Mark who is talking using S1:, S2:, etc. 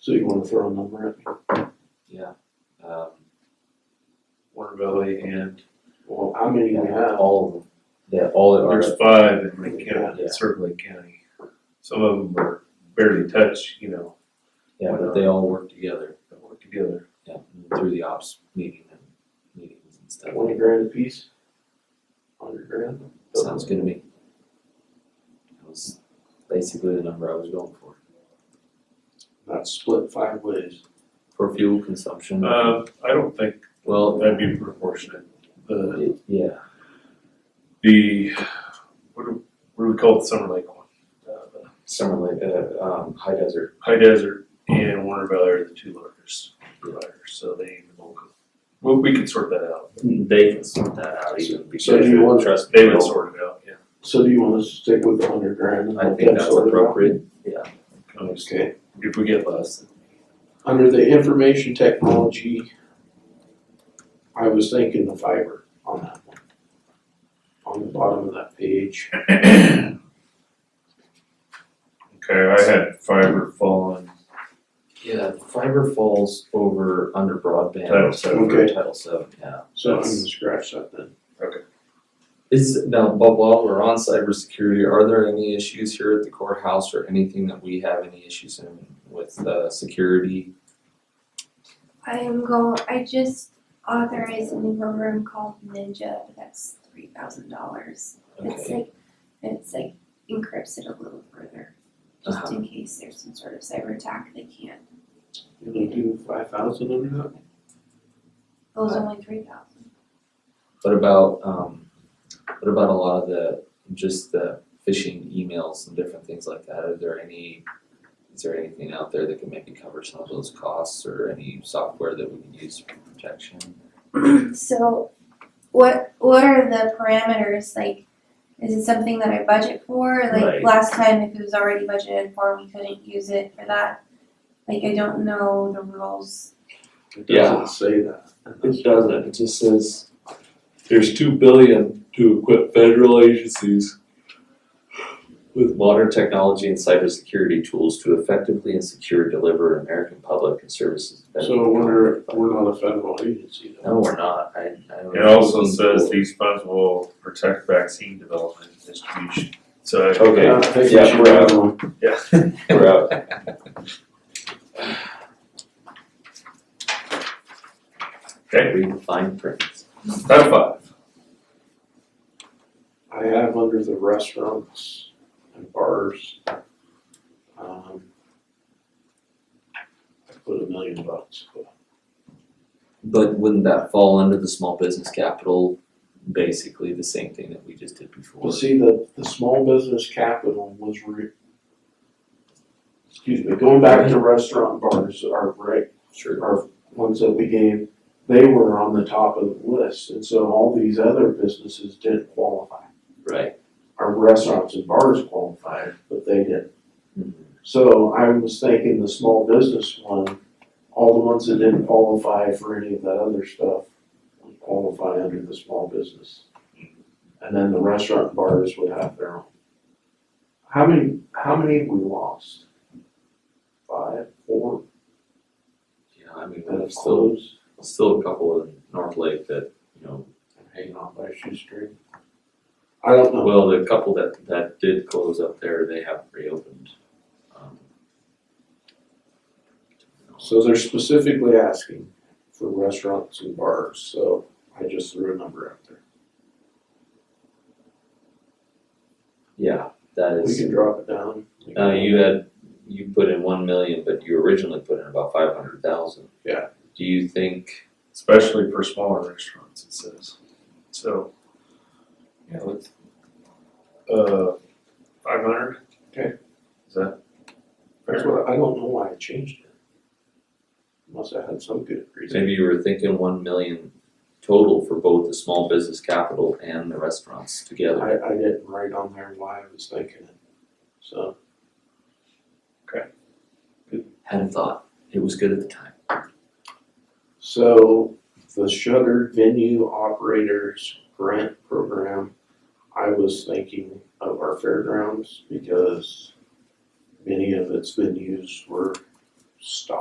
S1: So you wanna throw a number at me?
S2: Yeah, um, Warner Valley and.
S1: Well, how many do we have?
S2: All of them, yeah, all that are,
S3: There's five in Lake County, Circle Lake County. Some of them are barely touch, you know,
S2: yeah, but they all work together,
S3: don't work together.
S2: yeah, through the ops meeting and meetings and stuff.
S1: Twenty grand a piece? Hundred grand?
S2: Sounds good to me. That was basically the number I was going for,
S1: That's split five ways.
S2: for fuel consumption,
S3: Uh, I don't think
S2: well,
S3: that'd be proportionate. The,
S2: it- yeah,
S3: the, what do, what do we call the Summer Lake one? Uh, the
S2: summer, like, uh, um, high desert,
S3: High Desert and Warner Valley are the two largest providers, so they, well, we can sort that out.
S2: they can sort that out even because.
S1: Hmm. So do you want-
S2: trust
S3: They would
S2: people.
S3: sort it out, yeah.
S1: So do you wanna stick with the hundred grand? and
S2: I
S1: let
S2: think
S1: that
S2: that's
S1: sort it out?
S2: appropriate, yeah,
S1: Okay,
S3: Um, If we get less,
S1: under the information technology, I was thinking the fiber on that one. On the bottom of that page,
S3: okay, I had fiber falling,
S2: yeah, fiber falls over under broadband.
S3: Title seven.
S2: over
S1: Okay.
S2: Title seven, yeah.
S1: so I'm gonna scratch that then.
S2: Is, now, but while we're on cybersecurity, are there any issues here at the courthouse or anything that we have any issues in with, uh, security?
S4: I am go. I just authorized a new program called Ninja, but that's three thousand dollars. It's
S2: Okay,
S4: like it's like encrypts it a little further, just
S2: Uh-huh.
S4: in case there's some sort of cyber attack. They can't.
S1: You gonna do five thousand under that?
S4: It was
S2: Uh-huh.
S4: only three thousand.
S2: what about, um, what about a lot of the, just the phishing emails and different things like that? Are there any, is there anything out there that can maybe cover some of those costs or any software that we can use for protection?
S4: So, what what are the parameters like? Is it something that I budget for? Like
S2: Right.
S4: last time, if it was already budgeted for, we couldn't use it for that. Like I don't know the rules.
S1: It
S5: Yeah.
S1: doesn't say that.
S5: It doesn't, it just says, there's two billion to equip federal agencies
S2: With modern technology and cybersecurity tools to effectively and secure deliver American public and services. to benefit
S1: So we're, we're not a federal agency though.
S2: No, we're not, I, I don't.
S3: It also says these funds will protect vaccine development and distribution, so.
S5: Okay.
S1: Yeah, I think we
S5: Yeah,
S1: should
S5: we're
S1: have
S5: out.
S1: one.
S3: Yeah.
S5: We're out.
S3: Okay,
S2: Read the fine print.
S3: Title five,
S1: I have under the restaurants and bars. Um. I put a million bucks, but
S2: But wouldn't that fall under the small business capital, basically the same thing that we just did before?
S1: Well, see, the, the small business capital was re. Excuse me, going back to restaurant bars, our break,
S2: Sure.
S1: our ones that we gave, they were on the top of the list, and so all these other businesses didn't qualify.
S2: Right.
S1: Our restaurants and bars qualified, but they didn't.
S2: Mhm.
S1: So I was thinking the small business one, all the ones that didn't qualify for any of that other stuff would qualify under the small business. And then the restaurant and bars would have their own. How many, how many have we lost? Five, four,
S2: Yeah, I mean,
S1: that have
S2: there's still,
S1: closed?
S2: still a couple in North Lake that, you know,
S1: I'm Hanging on by a shoestring? I don't know.
S2: well, the couple that, that did close up there, they haven't reopened. Um,
S1: So they're specifically asking for restaurants and bars, so I just threw a number out there.
S2: Yeah, that
S1: We
S2: is,
S1: can drop it down.
S2: uh, you had, you put in one million, but you originally put in about five hundred thousand.
S1: Yeah.
S2: Do you think
S3: especially for smaller restaurants, it says, so. Yeah, let's. Uh, five hundred?
S1: Okay.
S3: Is that?
S1: That's what, I don't know why I changed it. Must have had some good reason.
S2: Maybe you were thinking one million total for both the small business capital and the restaurants together.
S1: I, I didn't write on there why I was thinking it, so.
S2: Hadn't thought, it was good at the time.
S1: So the shuttered venue operators grant program, I was thinking of our fairgrounds because many of its venues were stop.